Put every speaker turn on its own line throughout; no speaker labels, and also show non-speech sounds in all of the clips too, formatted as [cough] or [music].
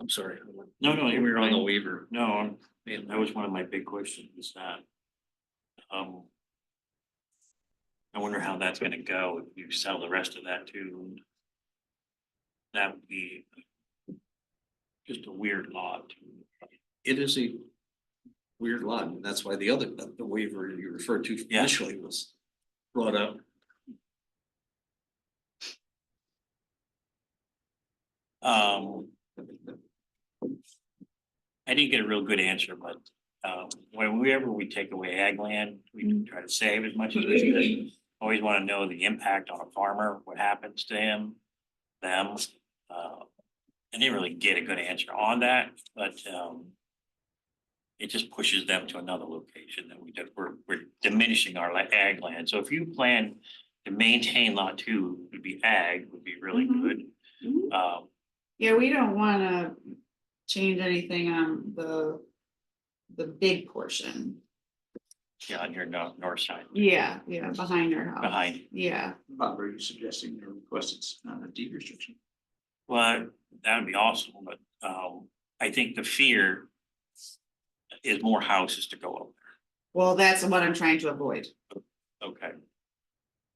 I'm sorry.
No, no,
We
you're
were on the
fine.
waiver.
No, I'm- man, that was one of my big questions, is that. Um. I wonder how that's gonna go, if you sell the rest of that too. That would be. Just a weird lot.
It is a weird lot, and that's why the other, the waiver you referred to
Yeah.
initially was brought up.
Um. I didn't get a real good answer, but, um, whenever we take away ag land, we try to save as much as we can. Always wanna know the impact on a farmer, what happens to him, them, uh. I didn't really get a good answer on that, but, um. It just pushes them to another location that we, that we're, we're diminishing our la- ag land. So if you plan to maintain lot two, would be ag, would be really
Mhm.
good. Um,
Yeah, we don't wanna change anything on the, the big portion.
Yeah, on your north, north side,
Yeah, yeah, behind our house.
behind,
Yeah,
Bob, are you suggesting the request is not a deed restriction?
well, that'd be awesome, but, um, I think the fear. Is more houses to go
well, that's what I'm trying to avoid.
up, okay,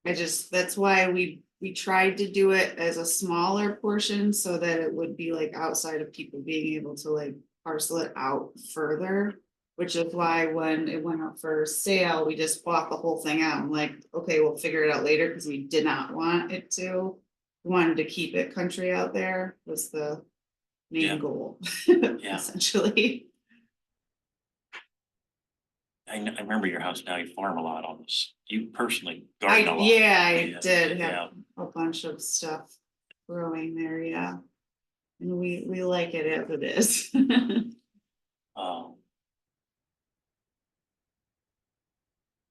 I just, that's why we, we tried to do it as a smaller portion so that it would be like outside of people being able to like parcel it out further. Which is why when it went up for sale, we just bought the whole thing out. I'm like, okay, we'll figure it out later because we did not want it to. Wanted to keep it country out there was the
Yeah.
main goal. [laughs] Essentially,
I, kn- I remember your house now, you farm a lot on this, you personally
I,
garden a lot.
yeah, I did have
yeah.
a bunch of stuff growing there, yeah. And we, we like it as it is. [laughs]
Um.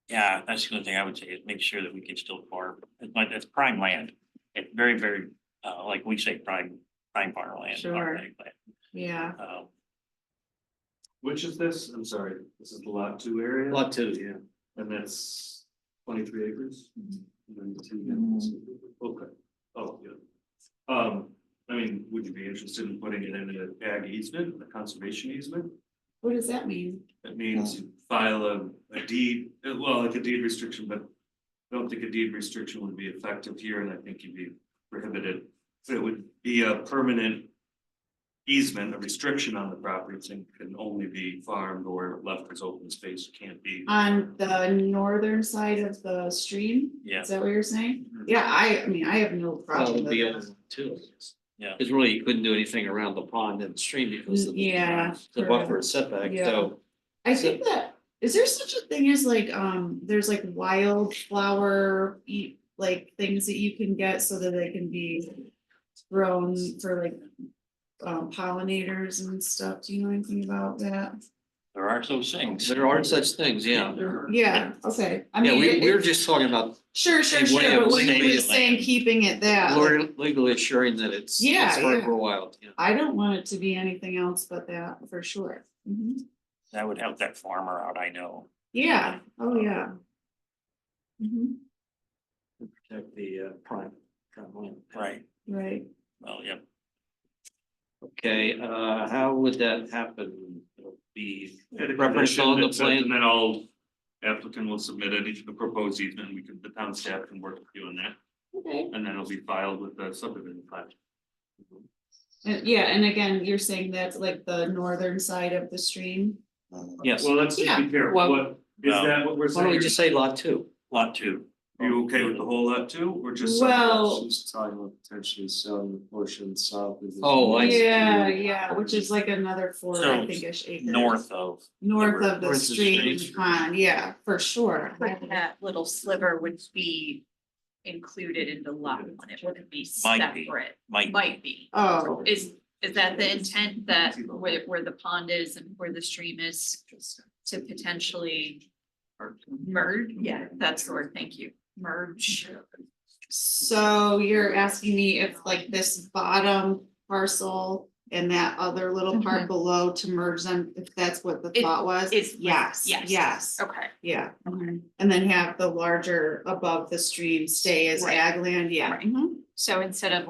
Yeah, that's the only thing I would say is make sure that we can still farm, it's like, that's prime land, it's very, very, uh, like we say, prime, prime farm land.
Sure.
farm land,
Yeah,
um,
Which is this? I'm sorry, this is the lot two area?
Lot two, yeah.
And that's twenty-three acres?
Mm-hmm.
Mhm.
And then the two units. Okay, oh, yeah. Um, I mean, would you be interested in putting it in an ag easement, a conservation easement?
what does that mean?
That means you file a, a deed, uh, well, like a deed restriction, but I don't think a deed restriction would be effective here, and I think you'd be prohibited. So it would be a permanent easement, a restriction on the property, and can only be farmed or left as open space, can't be.
On the northern side of the stream?
Yeah.
Is that what you're saying? Yeah, I, I mean, I have no
Well,
problem
it'd
with
be on
that.
lot two, I guess.
Yeah.
Because really, you couldn't do anything around the pond and the stream because of the. uh,
Yeah,
The
correct.
buffer is setback,
Yeah.
so
I think that, is there such a thing as like, um, there's like wildflower, eat, like things that you can get so that they can be grown for like um, pollinators and stuff? Do you know anything about that?
There are those things.
there are such things, yeah.
Yeah, okay. I
Yeah,
mean,
we,
it-
we were just talking about
sure, sure,
Hey, William,
sure, but we were
legally-
just saying keeping it that. like,
lawyer- legally assuring that it's.
Yeah,
it's hard
yeah.
For a while, yeah.
I don't want it to be anything else but that for sure. Mhm.
That would help that farmer out, I know.
Yeah, oh, yeah. Mhm,
to Protect the uh, prime. prime land.
Right.
Right.
Well, yeah,
Okay, uh, how would that happen? It'll Be
At a
reference on
condition
the
that says,
plan,
And then all applicant will submit any the proposed easement, we can, the town staff can work with you on that,
Okay.
and then it'll be filed with the subdivision plan.
And yeah, and again, you're saying that's like the northern side of the stream?
yes.
Well, let's just
Yeah,
be careful,
well-
what, is
No.
that what we're
Why don't we
saying?
just say lot two?
lot two.
Are you okay with the whole lot too, or just? some?
Well-
She's talking about potentially selling the portion south. of the-
Oh, I see.
Yeah, yeah, which is like another four, I
So,
think ish acres.
North of,
North of
North
the
of the
stream,
stream.
pond, yeah, for sure.
But that little sliver would be included in the lot one, it wouldn't be
Might be.
separate,
might,
might be.
Oh,
Is, is that the intent that where, where the pond is and where the stream is to potentially merge? Yeah, that's the word, thank you, merge.
So you're asking me if like this bottom parcel and that other little part below to merge them, if that's what the
Mm-hmm. It-
thought was?
it's-
Yes,
yes.
yes,
Okay, Mm-hmm.
yeah.
Okay.
And then have the larger above the stream stay as
Right.
ag land, yeah.
Right.
mhm.
so instead of